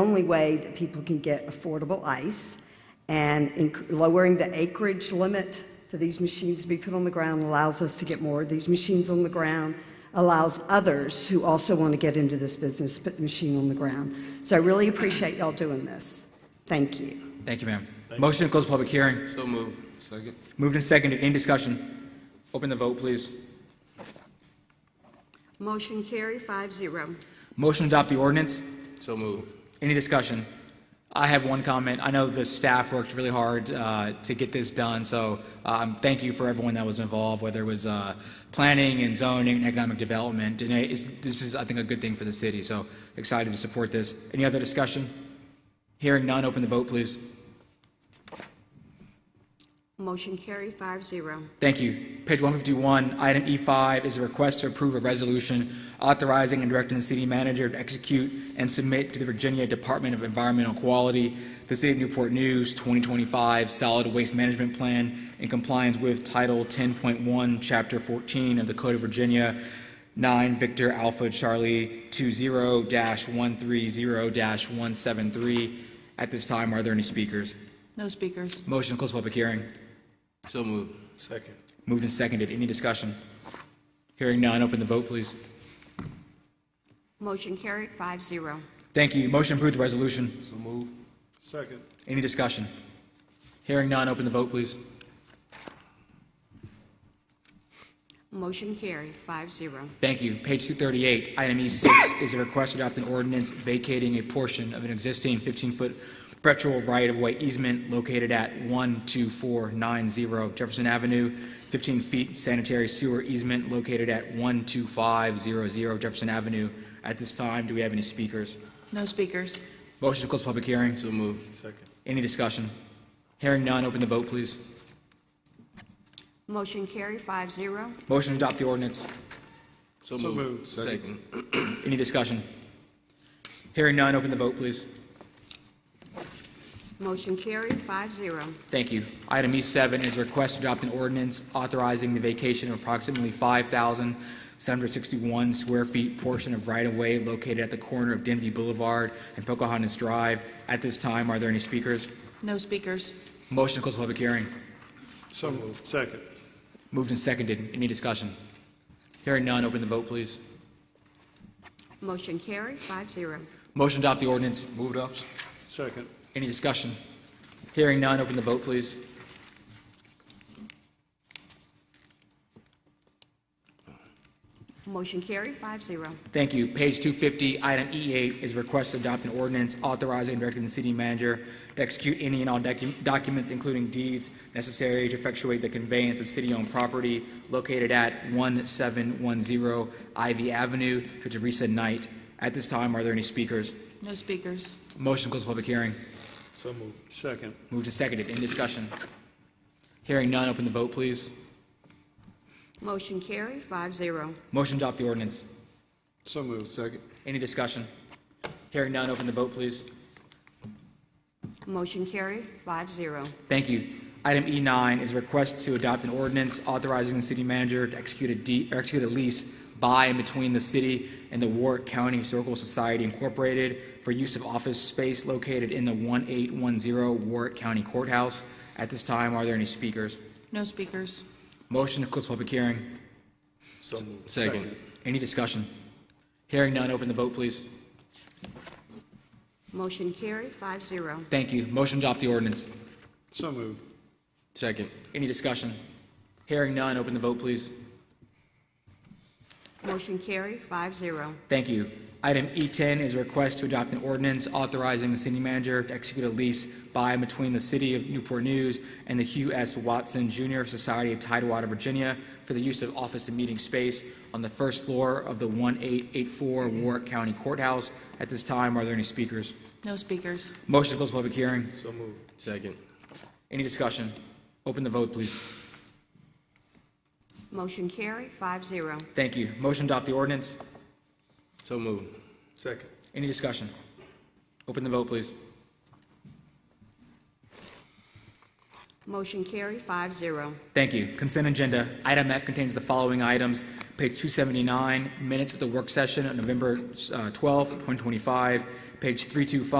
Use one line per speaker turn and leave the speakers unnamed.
only way that people can get affordable ice, and in- lowering the acreage limit for these machines to be put on the ground allows us to get more of these machines on the ground, allows others who also want to get into this business to put the machine on the ground. So I really appreciate y'all doing this. Thank you.
Thank you, ma'am. Motion to close public hearing.
So move. Second.
Moved and seconded. Any discussion? Open the vote, please.
Motion carry five zero.
Motion to adopt the ordinance.
So move.
Any discussion? I have one comment. I know the staff worked really hard uh, to get this done, so um, thank you for everyone that was involved, whether it was uh, planning and zoning and economic development. And it is- this is, I think, a good thing for the city, so excited to support this. Any other discussion? Hearing none, open the vote, please.
Motion carry five zero.
Thank you. Page 151, item E5 is a request to approve a resolution authorizing and directing the city manager to execute and submit to the Virginia Department of Environmental Quality, the City of Newport News 2025 Solid Waste Management Plan in compliance with Title 10.1, Chapter 14 of the Code of Virginia, 9 Victor Alpha Charlie 20-130-173. At this time, are there any speakers?
No speakers.
Motion to close public hearing.
So move. Second.
Moved and seconded. Any discussion? Hearing none, open the vote, please.
Motion carried five zero.
Thank you. Motion approved the resolution.
So move. Second.
Any discussion? Hearing none, open the vote, please.
Motion carried five zero.
Thank you. Page 238, item E6 is a request to adopt an ordinance vacating a portion of an existing 15-foot perpetual right-of-way easement located at 12490 Jefferson Avenue, 15 feet sanitary sewer easement located at 12500 Jefferson Avenue. At this time, do we have any speakers?
No speakers.
Motion to close public hearing.
So move. Second.
Any discussion? Hearing none, open the vote, please.
Motion carry five zero.
Motion to adopt the ordinance.
So move. Second.
Any discussion? Hearing none, open the vote, please.
Motion carried five zero.
Thank you. Item E7 is a request to adopt an ordinance authorizing the vacation of approximately 5,761 square feet portion of right-of-way located at the corner of Denby Boulevard and Pocahontas Drive. At this time, are there any speakers?
No speakers.
Motion to close public hearing.
So moved. Second.
Moved and seconded. Any discussion? Hearing none, open the vote, please.
Motion carried five zero.
Motion to adopt the ordinance.
Moved up.
Second.
Any discussion? Hearing none, open the vote, please.
Motion carried five zero.
Thank you. Page 250, item E8 is request to adopt an ordinance authorizing and directing the city manager to execute any and all docu- documents, including deeds, necessary to effectuate the conveyance of city-owned property located at 1710 Ivy Avenue to Teresa Knight. At this time, are there any speakers?
No speakers.
Motion to close public hearing.
So moved. Second.
Moved and seconded. Any discussion? Hearing none, open the vote, please.
Motion carried five zero.
Motion to adopt the ordinance.
So moved.
Second.
Any discussion? Hearing none, open the vote, please.
Motion carried five zero.
Thank you. Item E9 is a request to adopt an ordinance authorizing the city manager to execute a deed, or execute a lease by and between the city and the Warwick County Historical Society Incorporated for use of office space located in the 1810 Warwick County Courthouse. At this time, are there any speakers?
No speakers.
Motion to close public hearing.
So moved.
Second.
Any discussion? Hearing none, open the vote, please.
Motion carried five zero.
Thank you. Motion to adopt the ordinance.
So moved.
Second.
Any discussion? Hearing none, open the vote, please.
Motion carried five zero.
Thank you. Item E10 is a request to adopt an ordinance authorizing the city manager to execute a lease by and between the City of Newport News and the Hugh S. Watson Jr. Society of Tidewater, Virginia, for the use of office and meeting space on the first floor of the 1884 Warwick County Courthouse. At this time, are there any speakers?
No speakers.
Motion to close public hearing.
So moved.
Second.
Any discussion? Open the vote, please.
Motion carried five zero.
Thank you. Motion to adopt the ordinance.
So move.
Second.
Any discussion? Open the vote, please.
Motion carried five zero.
Thank you. Consent agenda. Item F contains the following items. Page 279, minutes of the work session on November uh, 12th, 2025. Page 325,